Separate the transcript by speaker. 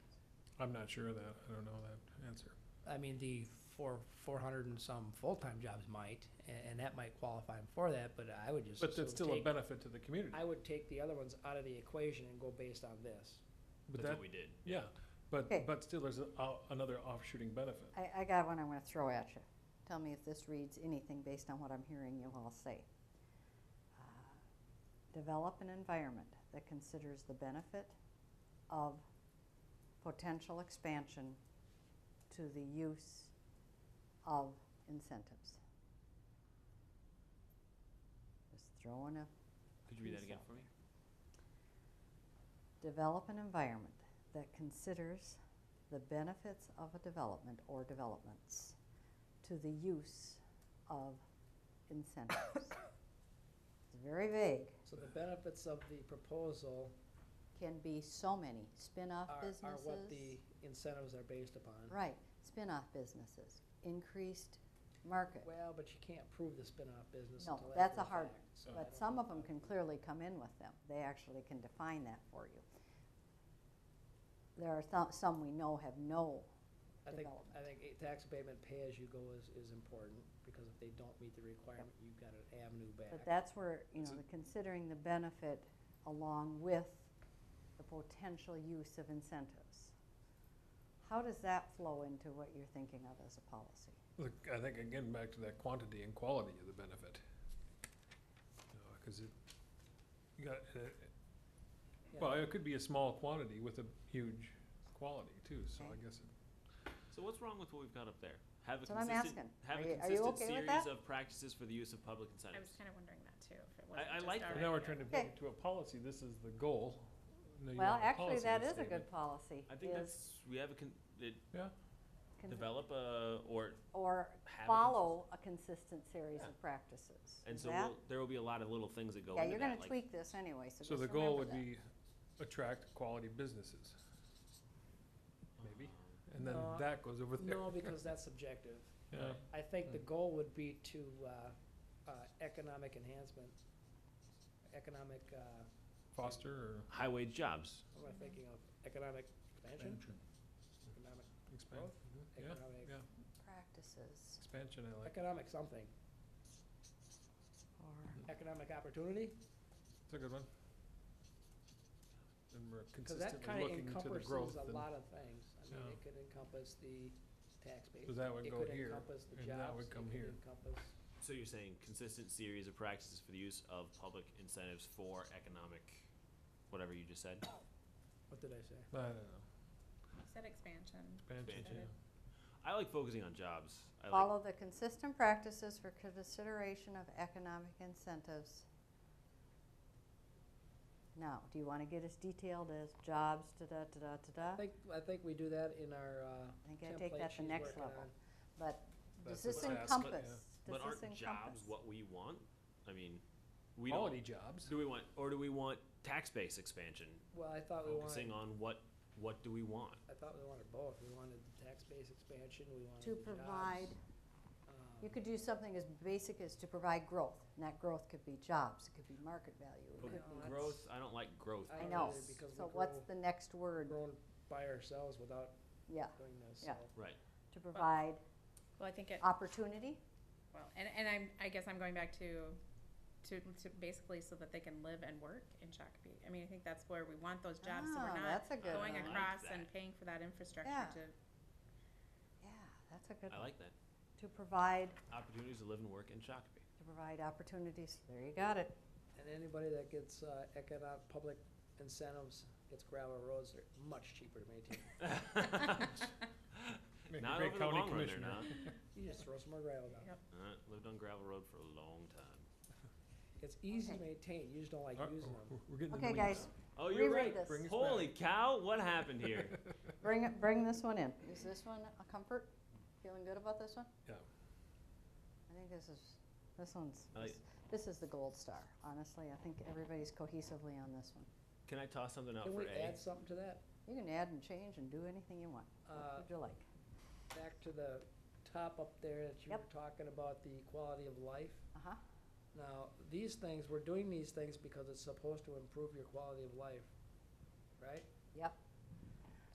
Speaker 1: I'm not sure of that. I don't know that answer.
Speaker 2: I mean, the four, four hundred and some full-time jobs might, and, and that might qualify them for that, but I would just.
Speaker 1: But that's
Speaker 2: assume
Speaker 1: still a
Speaker 2: take-
Speaker 1: benefit to the community.
Speaker 2: I would take the other ones out of the equation and go based on this.
Speaker 1: But
Speaker 3: That's
Speaker 1: that,
Speaker 3: what we did.
Speaker 1: yeah, but,
Speaker 4: Okay.
Speaker 1: but still there's a- uh, another offshooting benefit.
Speaker 4: I, I got one I want to throw at you. Tell me if this reads anything based on what I'm hearing you all say. Uh, Develop an environment that considers the benefit of potential expansion to the use of incentives. Just throwing a
Speaker 3: Could you read that
Speaker 4: Think
Speaker 3: again for
Speaker 4: so.
Speaker 3: me?
Speaker 4: Develop an environment that considers the benefits of a development or developments to the use of incentives. It's very vague,
Speaker 2: So the benefits of the proposal
Speaker 4: can be so many, spin-off
Speaker 2: are, are
Speaker 4: businesses.
Speaker 2: what the incentives are based upon.
Speaker 4: Right, spin-off businesses, increased market.
Speaker 2: Well, but you can't prove the spin-off business
Speaker 4: No,
Speaker 2: until after
Speaker 4: that's
Speaker 2: the
Speaker 4: a hard
Speaker 2: fact, so I
Speaker 4: But
Speaker 2: don't
Speaker 4: some
Speaker 2: know
Speaker 4: of them
Speaker 2: if
Speaker 4: can clearly come in with them. They actually can define that for you. There are some, some we know have no
Speaker 2: I think,
Speaker 4: development.
Speaker 2: I think a tax abatement pay-as-you-go is, is important, because if they don't meet the requirement, you've got an avenue back.
Speaker 4: But that's where, you know,
Speaker 1: So-
Speaker 4: the considering the benefit along with the potential use of incentives. How does that flow into what you're thinking of as a policy?
Speaker 1: Look, I think again, back to that quantity and quality of the benefit. You know, Cause it, you got, uh,
Speaker 2: Yeah.
Speaker 1: well, it could be a small quantity with a huge quality too, so I
Speaker 4: Okay.
Speaker 1: guess it
Speaker 3: So what's wrong with what we've got up there? Have a
Speaker 4: That's what I'm
Speaker 3: consistent,
Speaker 4: asking.
Speaker 3: have
Speaker 4: Are
Speaker 3: a
Speaker 4: you- are you
Speaker 3: consistent
Speaker 4: okay with
Speaker 3: series
Speaker 4: that?
Speaker 3: of practices for the use of public
Speaker 5: I was
Speaker 3: incentives.
Speaker 5: kind of wondering that too, if it wasn't
Speaker 3: I, I
Speaker 5: just
Speaker 3: like that.
Speaker 5: already
Speaker 1: Now we're
Speaker 5: there.
Speaker 1: trying to make
Speaker 4: Okay.
Speaker 1: it to a policy, this is the goal. No, you
Speaker 4: Well,
Speaker 1: want a
Speaker 4: actually,
Speaker 1: policy
Speaker 4: that is a
Speaker 1: statement.
Speaker 4: good policy,
Speaker 3: I think
Speaker 4: is
Speaker 3: that's, we have a con, it
Speaker 1: Yeah,
Speaker 4: con-
Speaker 3: develop a, or,
Speaker 4: or
Speaker 3: have a
Speaker 4: follow a consistent series
Speaker 3: Yeah.
Speaker 4: of practices.
Speaker 3: and
Speaker 4: Is
Speaker 3: so
Speaker 4: that-
Speaker 3: we'll, there will be a lot of little things that go
Speaker 4: Yeah,
Speaker 3: into
Speaker 4: you're
Speaker 3: that,
Speaker 4: gonna
Speaker 3: like-
Speaker 4: tweak this anyway, so
Speaker 1: so
Speaker 4: just
Speaker 1: the goal
Speaker 4: remember
Speaker 1: would be
Speaker 4: that.
Speaker 1: attract quality businesses. Maybe, and then
Speaker 2: No,
Speaker 1: that goes over there.
Speaker 2: No, because that's subjective.
Speaker 1: Yeah.
Speaker 2: I think the
Speaker 1: Hmm.
Speaker 2: goal would be to, uh, uh, economic enhancement, economic, uh,
Speaker 1: Foster or
Speaker 3: High wage jobs.
Speaker 2: what am I thinking of, economic expansion? Economic,
Speaker 1: expand,
Speaker 2: Growth?
Speaker 1: Mhm. yeah,
Speaker 2: economic,
Speaker 1: yeah,
Speaker 4: Practices
Speaker 1: expansion, I like,
Speaker 2: economic something,
Speaker 4: or
Speaker 2: economic opportunity,
Speaker 1: it's a good one. And we're
Speaker 2: cause that
Speaker 1: consistently
Speaker 2: kinda
Speaker 1: looking to the
Speaker 2: encompasses
Speaker 1: growth,
Speaker 2: a
Speaker 1: and-
Speaker 2: lot of things. I mean,
Speaker 1: Yeah.
Speaker 2: it could encompass the tax base.
Speaker 1: so that would go here,
Speaker 2: It could encompass the
Speaker 1: and
Speaker 2: jobs.
Speaker 1: that would
Speaker 2: it
Speaker 1: come
Speaker 2: could
Speaker 1: here.
Speaker 2: encompass-
Speaker 3: So you're saying consistent series of practices for the use of public incentives for economic, whatever you just said?
Speaker 2: what did I say?
Speaker 1: I don't know,
Speaker 5: You Said expansion.
Speaker 1: expansion,
Speaker 3: Expansion.
Speaker 1: yeah.
Speaker 3: I like focusing on jobs. I like
Speaker 4: Follow the consistent practices for consideration of economic incentives. Now, do you want to get as detailed as jobs,
Speaker 2: I
Speaker 4: da-da-da-da-da-da?
Speaker 2: think, I think we do that in our, uh,
Speaker 4: I think I take
Speaker 2: template
Speaker 4: that the
Speaker 2: she's
Speaker 4: next
Speaker 2: working
Speaker 4: level.
Speaker 2: on.
Speaker 4: But does
Speaker 1: That's
Speaker 4: this
Speaker 1: the task, but-
Speaker 4: encompass?
Speaker 3: But
Speaker 4: Does
Speaker 3: aren't
Speaker 4: this
Speaker 3: jobs
Speaker 4: encompass?
Speaker 3: what we want? I mean, we
Speaker 1: Quality
Speaker 3: don't,
Speaker 1: jobs,
Speaker 3: do we want, or do we want tax base expansion?
Speaker 2: Well, I thought we wanted,
Speaker 3: Focusing on what, what do we want?
Speaker 2: I thought we wanted both. We wanted the tax base expansion, we wanted
Speaker 4: To
Speaker 2: the jobs.
Speaker 4: provide, you
Speaker 2: um,
Speaker 4: could do something as basic as to provide growth. And that growth could be jobs, it could be market value. it
Speaker 3: But
Speaker 4: could
Speaker 2: No,
Speaker 4: be-
Speaker 2: that's-
Speaker 3: Growth, I don't like growth.
Speaker 2: I
Speaker 4: I
Speaker 2: don't
Speaker 4: know.
Speaker 2: either because we
Speaker 4: So what's
Speaker 2: grow-
Speaker 4: the next word?
Speaker 2: grown by ourselves without
Speaker 4: Yeah,
Speaker 2: doing this, so.
Speaker 4: Yeah.
Speaker 3: Right.
Speaker 4: to provide
Speaker 5: Well, I think it,
Speaker 4: opportunity?
Speaker 5: well, and, and I'm, I guess I'm going back to, to, to basically so that they can live and work in Shakopee. I mean, I think that's where we want those jobs, so
Speaker 4: Ah,
Speaker 5: we're not
Speaker 4: That's a good
Speaker 5: going
Speaker 4: one.
Speaker 3: I like
Speaker 5: across
Speaker 3: that.
Speaker 5: and paying for that infrastructure
Speaker 4: Yeah.
Speaker 5: to
Speaker 4: Yeah, that's a good
Speaker 3: I
Speaker 4: one.
Speaker 3: like that.
Speaker 4: To provide,
Speaker 3: Opportunities to live and work in Shakopee.
Speaker 4: to provide opportunities, there you got it.
Speaker 2: And anybody that gets, uh, economic, public incentives, gets gravel roads, they're much cheaper to maintain.
Speaker 1: make a
Speaker 3: Not
Speaker 1: great
Speaker 3: over the
Speaker 1: county
Speaker 3: long run, they're
Speaker 1: commissioner.
Speaker 3: not.
Speaker 2: You just throw some more gravel down.
Speaker 3: Uh, Lived on gravel road for a long time.
Speaker 2: It's easy to
Speaker 4: Okay.
Speaker 2: maintain, you just don't like
Speaker 1: Uh,
Speaker 2: using
Speaker 1: we're-
Speaker 2: them.
Speaker 1: We're getting in the
Speaker 4: Okay, guys,
Speaker 1: weeds.
Speaker 3: Oh, you're
Speaker 4: Reread
Speaker 3: right.
Speaker 4: this.
Speaker 1: Bring us
Speaker 3: Holy cow, what happened here?
Speaker 4: bring, it- bring this one in. Is this one a comfort? Feeling good about this one?
Speaker 1: Yeah.
Speaker 4: I think this is, this one's,
Speaker 3: I like-
Speaker 4: this- this is the gold star, honestly. I think everybody's cohesively on this one.
Speaker 3: Can I toss something out
Speaker 2: Can
Speaker 3: for
Speaker 2: we
Speaker 3: A?
Speaker 2: add something to that?
Speaker 4: You can add and change and do anything you want. What
Speaker 2: Uh,
Speaker 4: would you like?
Speaker 2: Back to the top up there that you were talking about, the quality of life.
Speaker 4: Uh-huh.
Speaker 2: Now, these things, we're doing these things because it's supposed to improve your quality of life, right?
Speaker 4: Yep.